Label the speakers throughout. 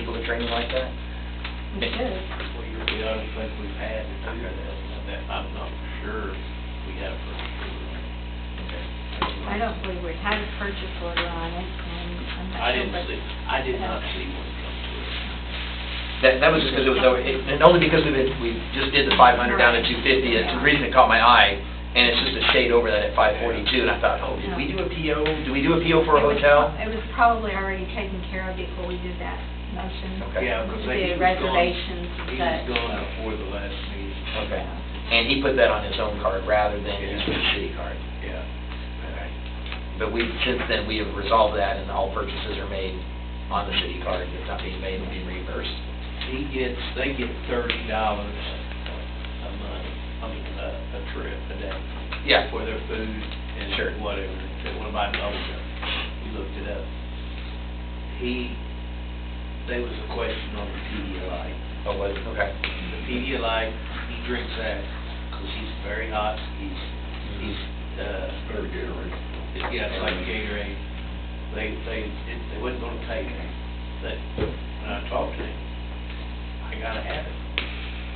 Speaker 1: training like that?
Speaker 2: We should.
Speaker 3: We, we don't think we've had to do that, and that- I'm not for sure we have for sure.
Speaker 2: I don't believe we had a purchase order on it, and I'm not sure.
Speaker 3: I didn't
Speaker 2: what-
Speaker 3: see, I did not see one come through.
Speaker 1: That, that was just because it was, over- it- and only because we, we just did the five hundred down to two fifty, it's the reason it caught my eye, and it's just a shade over that at five forty-two, and I thought, oh, did we do a PO? Do we do a PO for a
Speaker 2: It was
Speaker 1: hotel?
Speaker 2: prob- It was probably already taken care of before we did that motion.
Speaker 1: Okay.
Speaker 3: Yeah, because
Speaker 2: We did
Speaker 3: he was gone.
Speaker 2: reservations,
Speaker 3: He was
Speaker 2: but- uh,
Speaker 3: gone before the last meeting.
Speaker 1: Okay. And he put that on his own card rather than his city card.
Speaker 3: Yeah.
Speaker 1: But we, since then, we have resolved that, and all purchases are made on the city card, if not being made, it'll be reimbursed.
Speaker 3: He gets, they get thirty dollars a month, I mean, a, a trip a day.
Speaker 1: Yeah.
Speaker 3: For their food and
Speaker 1: Sure.
Speaker 3: whatever, They want to buy bubble gum, you looked it up. He, there was a question on the Pedialyte.
Speaker 1: Oh, was it? Okay.
Speaker 3: The Pedialyte, he drinks that because he's very hot, he's, he's, uh,
Speaker 4: Better Gatorade.
Speaker 3: yeah, it's like Gatorade. They, they, it- they wasn't gonna take it, but when I talked to him, I gotta have it.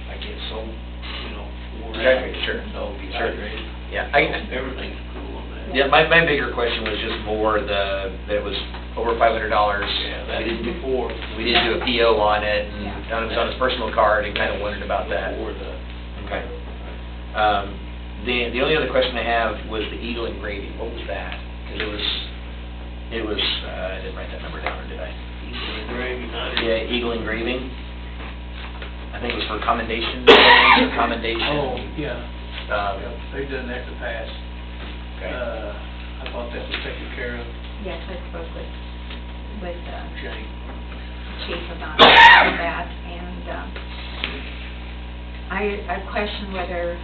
Speaker 3: I get so, you know, wore out.
Speaker 1: Exactly, sure,
Speaker 3: So
Speaker 1: sure.
Speaker 3: dehydrated.
Speaker 1: Yeah,
Speaker 3: So
Speaker 1: I,
Speaker 3: Everything's cool on that.
Speaker 1: yeah, my, my bigger question was just more the, that it was over five hundred dollars.
Speaker 3: Yeah, that
Speaker 1: We
Speaker 3: is
Speaker 1: didn't, do-
Speaker 3: before.
Speaker 1: we didn't do a PO on it, and it
Speaker 2: Yeah.
Speaker 1: was on his personal card, and kind of wondered about that.
Speaker 3: Before the.
Speaker 1: Okay. Um, the, the only other question I have was the Eagle engraving, what was that? Because it was, it was, uh, I didn't write that number down, or did I?
Speaker 3: Gravy night.
Speaker 1: Yeah, Eagle engraving. I think it was for commendation, or
Speaker 3: Oh,
Speaker 1: commendation.
Speaker 3: yeah,
Speaker 1: um,
Speaker 3: they've done that in the past. Uh,
Speaker 1: okay.
Speaker 3: I thought that was taken care of,
Speaker 2: Yes, I spoke with, with uh,
Speaker 3: Jane.
Speaker 2: Chief about that, and um, I, I questioned whether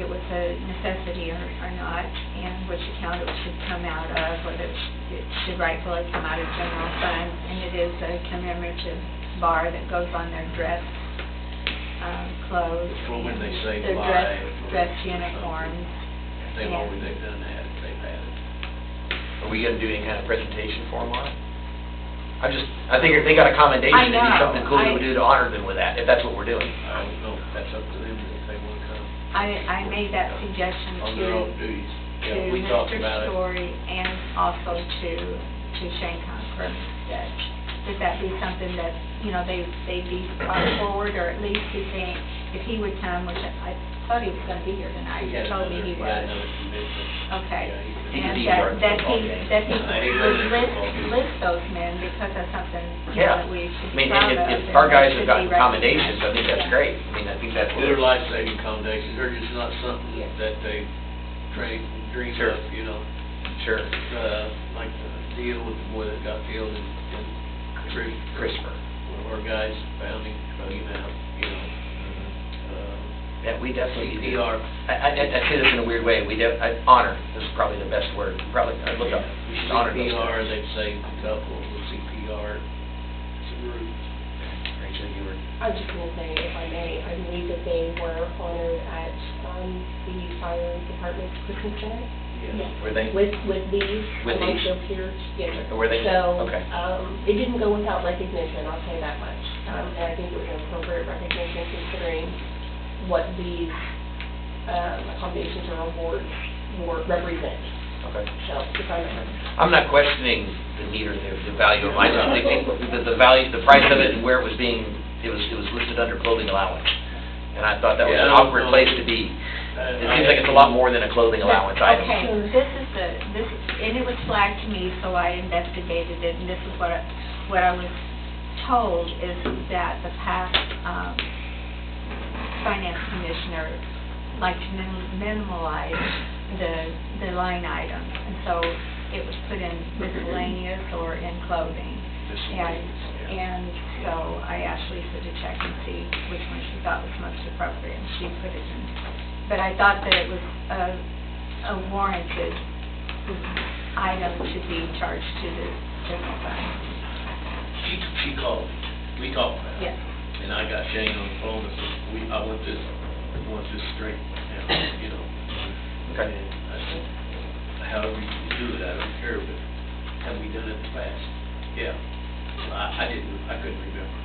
Speaker 2: it was a necessity or, or not, and which account it should come out of, whether it sh- it should rightfully come out of general fund, and it is a commemorative bar that goes on their dress, um, clothes.
Speaker 3: For when they save
Speaker 2: Their dress,
Speaker 3: lives.
Speaker 2: dress uniforms.
Speaker 3: They've always, they've done that, they've had it.
Speaker 1: Are we gonna do any kind of presentation for them on it? I just, I think if they got a commendation,
Speaker 2: I
Speaker 1: it'd be
Speaker 2: know,
Speaker 1: something cool
Speaker 2: I-
Speaker 1: to do to honor them with that, if that's what we're doing.
Speaker 3: I don't know, if that's up to them if they want to come.
Speaker 2: I, I made that suggestion to.
Speaker 3: On their own duties.
Speaker 2: to
Speaker 3: Yeah, we talked
Speaker 2: Mr.
Speaker 3: about it.
Speaker 2: Story and also to, to Shane Conker, that, that that be something that, you know, they, they be brought forward, or at least he think, if he would come, which I thought he was gonna be here tonight, he
Speaker 3: had
Speaker 2: told me he
Speaker 3: another- He
Speaker 2: was.
Speaker 3: had another commitment.
Speaker 2: Okay.
Speaker 3: Yeah, he's-
Speaker 1: He could
Speaker 2: And
Speaker 1: be
Speaker 2: that,
Speaker 1: here at the
Speaker 2: that he,
Speaker 1: football game.
Speaker 2: that he
Speaker 3: I think
Speaker 2: would
Speaker 3: that's
Speaker 2: list,
Speaker 3: football game.
Speaker 2: list those men because that's something, you know,
Speaker 1: Yeah.
Speaker 2: that we
Speaker 1: I
Speaker 2: should be
Speaker 1: mean,
Speaker 2: proud
Speaker 1: and
Speaker 2: of.
Speaker 1: if, if
Speaker 2: and
Speaker 1: our
Speaker 2: that
Speaker 1: guys
Speaker 2: should
Speaker 1: have
Speaker 2: be
Speaker 1: gotten
Speaker 2: recognized.
Speaker 1: commendations, I think that's
Speaker 2: Yeah.
Speaker 1: great. I mean, I think that's.
Speaker 3: They're life-saving accommodations, they're just not something
Speaker 2: Yes.
Speaker 3: that they train, dream
Speaker 1: Sure.
Speaker 3: of, you know?
Speaker 1: Sure.
Speaker 3: Uh, like the deal with the boy that got killed in, in Chris,
Speaker 1: CRISPR.
Speaker 3: one of our guys found him, drug him out, you know? Uh,
Speaker 1: Yeah, we definitely. need to-
Speaker 3: CPR.
Speaker 1: I, I, I I say this in a weird way, we do, I, honor is probably the best word, probably, I look up, we
Speaker 3: Uh,
Speaker 1: should honor those.
Speaker 3: CPR,
Speaker 1: guys.
Speaker 3: they've saved a couple with CPR. It's a group.
Speaker 1: Rachel, you were,
Speaker 5: I was just going to say, if I may, I believe that they were honored at um, the fire department's Christmas dinner
Speaker 3: Yeah.
Speaker 1: were they?
Speaker 5: with, with these,
Speaker 1: With
Speaker 5: among
Speaker 1: these?
Speaker 5: their peers. Yes.
Speaker 1: Were they?
Speaker 5: So,
Speaker 1: Okay.
Speaker 5: um, it didn't go without recognition, I'll say that much. Um, And I think it was an appropriate recognition considering what these um, accommodations or awards were, represent.
Speaker 1: Okay.
Speaker 5: So, if I may.
Speaker 1: I'm not questioning the need or the, the value of mine, I'm just thinking the, the value, the price of it and where it was being, it was, it was listed under clothing allowance. And I thought that was
Speaker 3: Yeah, I
Speaker 1: an
Speaker 3: don't
Speaker 1: awkward
Speaker 3: know.
Speaker 1: place to be.
Speaker 3: Uh,
Speaker 1: It seems like it's a lot more than a clothing allowance item.
Speaker 2: Okay, this is the, this, is- and it was flagged to me, so I investigated it, and this is what, I- what I was told is that the past, um, finance commissioner liked to minim- minimalize the, the line item, and so it was put in miscellaneous or in clothing. And,
Speaker 3: Miscellaneous, yeah.
Speaker 2: and so I asked Lisa to check and see which one she thought was most appropriate, and she put it in. But I thought that it was a, a warranted
Speaker 1: Mm-hmm.
Speaker 2: item to be charged to the general fund.
Speaker 3: She, she called, me. we talked about it.
Speaker 2: Yes.
Speaker 3: And I got Shane on the phone and said, we, I want this, I want this straight now, you know?
Speaker 1: Okay.
Speaker 3: And I said, however you do it, I don't care, but have we done it in the past? Yeah. I, I didn't, I couldn't remember.